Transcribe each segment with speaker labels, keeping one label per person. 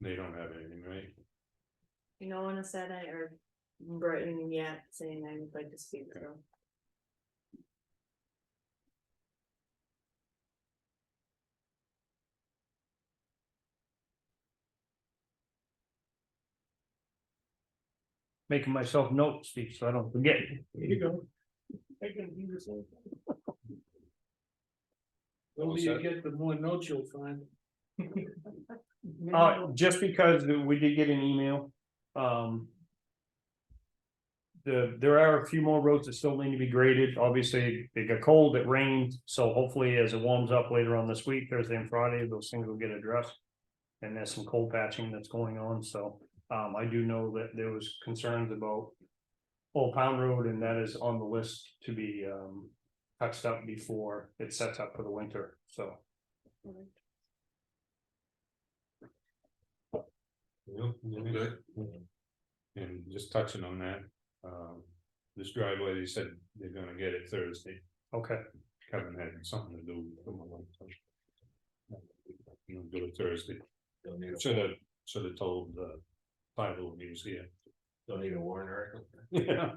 Speaker 1: They don't have anything, right?
Speaker 2: No one has said I or Britain yet saying I would like to speak to. them.
Speaker 3: making myself note speak, so I don't forget.
Speaker 1: There you go. I can do this one.
Speaker 4: Well, you get the more notes you'll find.
Speaker 3: Uh, just because we did get an email, um. The, there are a few more roads that still need to be graded. Obviously, it got cold, it rained, so hopefully as it warms up later on this week, Thursday and Friday, those things will get addressed. And there's some cold patching that's going on, so, um, I do know that there was concerns about. Old Pound Road, and that is on the list to be, um, touched up before it sets up for the winter, so.
Speaker 1: Yep. And just touching on that, um, this driveway, they said they're gonna get it Thursday,
Speaker 3: Okay,
Speaker 1: Kevin had something to do. with it. You know, do it Thursday,
Speaker 4: Don't need,
Speaker 1: should have, should have told uh, the Bible news here.
Speaker 4: don't need a warrant article.
Speaker 1: Yeah.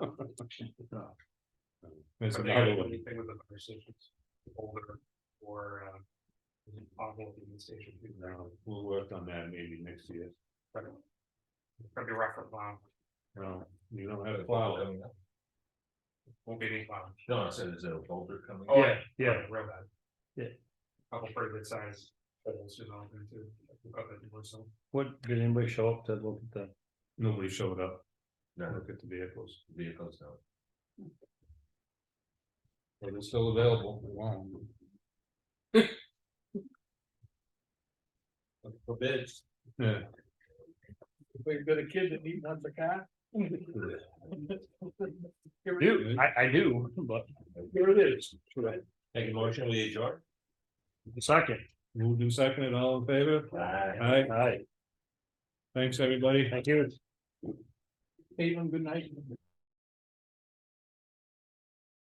Speaker 1: There's another one,
Speaker 4: Anything with the fire stations, older or, um, awful in the station.
Speaker 1: no, we'll work on that maybe next year,
Speaker 4: Probably rough for plow.
Speaker 1: no, you don't have a plow.
Speaker 4: Won't be any Oh, plow. No, I said, is there a boulder coming?
Speaker 3: yeah, yeah,
Speaker 4: real bad.
Speaker 3: Yeah.
Speaker 4: Couple pretty good size. holes, you know, into- up at the Bristol.
Speaker 3: what, did anybody show up to look at the?
Speaker 1: Nobody showed up,
Speaker 4: No.
Speaker 1: look at the vehicles,
Speaker 4: Vehicles now.
Speaker 1: but it's still available, we want 'em.
Speaker 4: For bids.
Speaker 1: Yeah.
Speaker 4: We've got a kid that needs not the car.
Speaker 3: Do, I, I do, but
Speaker 4: Here it is. Take a motion, will you, George?
Speaker 3: second,
Speaker 1: Moved and seconded, all in favor?
Speaker 4: Aye.
Speaker 1: Aye,
Speaker 3: aye,
Speaker 1: thanks, everybody.
Speaker 3: thank you.
Speaker 4: Even good night.